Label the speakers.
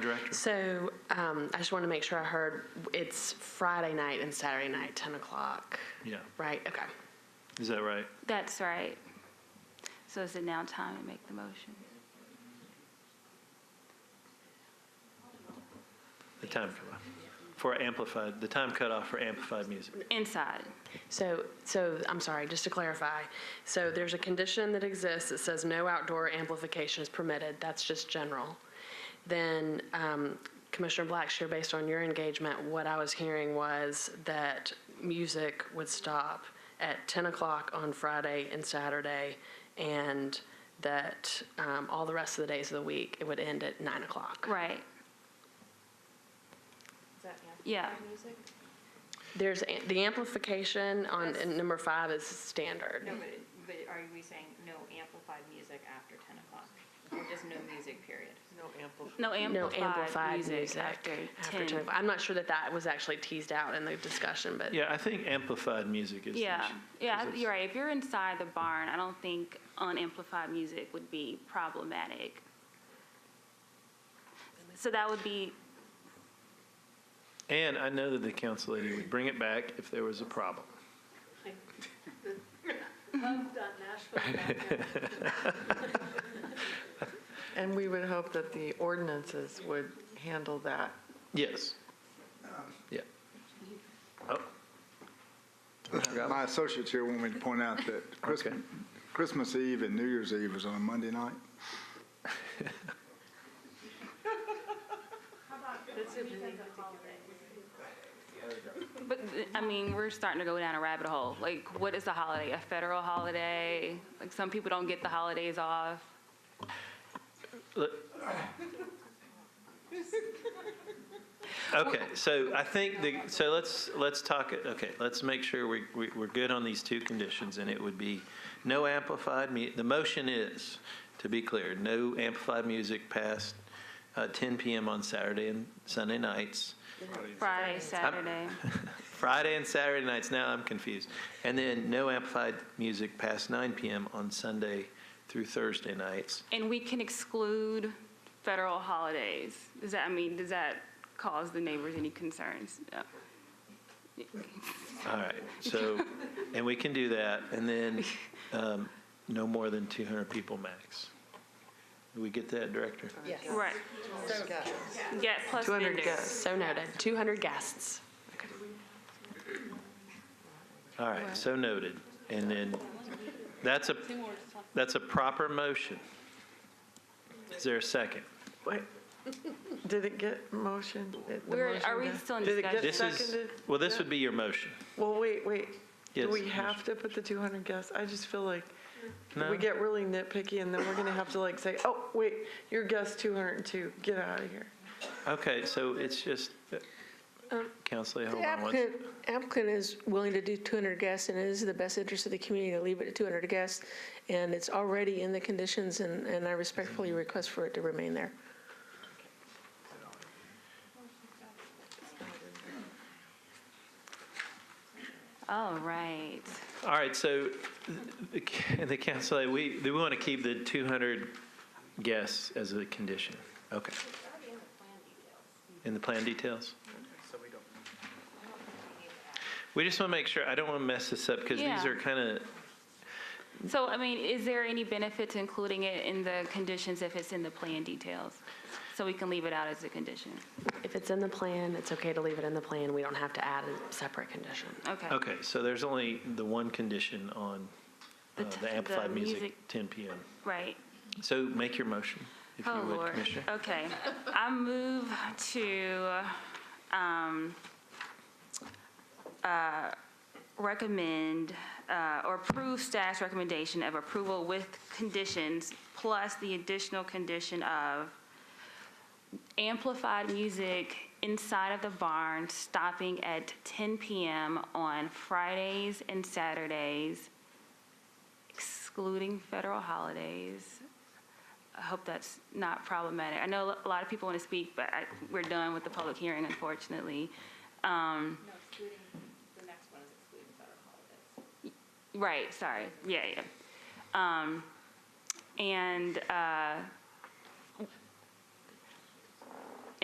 Speaker 1: Director?
Speaker 2: So um, I just want to make sure I heard, it's Friday night and Saturday night, 10 o'clock,
Speaker 1: Yeah,
Speaker 2: right? Okay.
Speaker 1: is that right?
Speaker 3: That's right. So is it now time to make the motion?
Speaker 1: The time cutoff for amplified, the time cutoff for amplified music.
Speaker 3: Inside.
Speaker 2: So, so I'm sorry, just to clarify. So there's a condition that exists that says no outdoor amplification is permitted. That's just general. Then um, Commissioner Blackshear, based on your engagement, what I was hearing was that music would stop at 10 o'clock on Friday and Saturday, and that um, all the rest of the days of the week, it would end at 9 o'clock.
Speaker 3: Right. Yeah.
Speaker 2: There's, a- the amplification on
Speaker 4: That's-
Speaker 2: number five is standard.
Speaker 4: No, but, it- but are we saying no amplified music after ten o'clock? Or just no music, period?
Speaker 5: No amplifier.
Speaker 3: No
Speaker 2: No amplified
Speaker 3: amplified
Speaker 2: music
Speaker 3: after
Speaker 2: after 10
Speaker 3: 10.
Speaker 2: o'clock. I'm not sure that that was actually teased out in the discussion, but
Speaker 1: Yeah, I think amplified music is. the
Speaker 3: Yeah,
Speaker 1: issue,
Speaker 3: yeah,
Speaker 1: 'cause it's-
Speaker 3: you're right. If you're inside the barn, I don't think unamplified music would be problematic. So that would be,
Speaker 1: And I know that the council lady would bring it back if there was a problem.
Speaker 5: And we would hope that the ordinances would handle that.
Speaker 1: Yes. Yeah. Oh,
Speaker 6: My associates here want me to point out that Christ-
Speaker 1: Okay.
Speaker 6: Christmas Eve and New Year's Eve is on a Monday night.
Speaker 3: but I mean, we're starting to go down a rabbit hole. Like, what is a holiday? A federal holiday? Like, some people don't get the holidays off.
Speaker 1: look. Okay, so I think the, so let's, let's talk, it- okay, let's make sure we, we- we're good on these two conditions, and it would be no amplified mu, the motion is, to be clear, no amplified music past uh, 10 PM on Saturday and Sunday nights,
Speaker 3: Friday, Saturday.
Speaker 1: Friday and Saturday nights, now I'm confused, and then no amplified music past 9 PM on Sunday through Thursday nights.
Speaker 3: And we can exclude federal holidays. Does that, I mean, does that cause the neighbors any concerns? No.
Speaker 1: All right, so, and we can do that, and then um, no more than 200 people max. Do we get that, Director?
Speaker 3: Right. Yeah, plus
Speaker 5: 200
Speaker 3: vendors.
Speaker 5: guests.
Speaker 2: so noted. 200 guests.
Speaker 1: All right, so noted. And then, that's a, that's a proper motion. Is there a second?
Speaker 5: Wait, did it get motion? Did the
Speaker 3: We're-
Speaker 5: motion
Speaker 3: are we
Speaker 5: get-
Speaker 3: still in
Speaker 5: Did it get
Speaker 1: This is,
Speaker 5: seconded?
Speaker 1: well, this would be your motion.
Speaker 5: Well, wait, wait. Do
Speaker 1: Yes,
Speaker 5: we have to put the 200 guests? I just feel like
Speaker 1: No?
Speaker 5: we get really nitpicky and then we're going to have to like say, oh, wait, your guest 202, get out of here.
Speaker 1: Okay, so it's just,
Speaker 5: Um,
Speaker 1: Counselor, hold
Speaker 7: The
Speaker 1: on one.
Speaker 7: applicant, applicant is willing to do 200 guests, and it is in the best interest of the community to leave it at 200 guests, and it's already in the conditions, and, and I respectfully request for it to remain there.
Speaker 3: All right.
Speaker 1: All right, so the the council, we, we want to keep the 200 guests as a condition. Okay. In the plan details? We just want to make sure, I don't want to mess this up because these
Speaker 3: Yeah.
Speaker 1: are kind of,
Speaker 3: So, I mean, is there any benefit to including it in the conditions if it's in the plan details? So we can leave it out as a condition?
Speaker 2: If it's in the plan, it's okay to leave it in the plan. We don't have to add a separate condition.
Speaker 3: Okay.
Speaker 1: okay, so there's only the one condition on uh,
Speaker 3: The t-
Speaker 1: the
Speaker 3: the
Speaker 1: amplified music,
Speaker 3: music-
Speaker 1: 10 PM.
Speaker 3: Right.
Speaker 1: So make your motion, if you
Speaker 3: Oh,
Speaker 1: would,
Speaker 3: Lord.
Speaker 1: Commissioner.
Speaker 3: Okay. I move to um, uh, recommend uh, or approve staff's recommendation of approval with conditions, plus the additional condition of amplified music inside of the barn stopping at 10 PM on Fridays and Saturdays, excluding federal holidays. I hope that's not problematic. I know a lot of people want to speak, but I, we're done with the public hearing, unfortunately. Um,
Speaker 4: No, excluding, the next one is excluding federal holidays.
Speaker 3: right, sorry, yeah, yeah. Um, and, uh,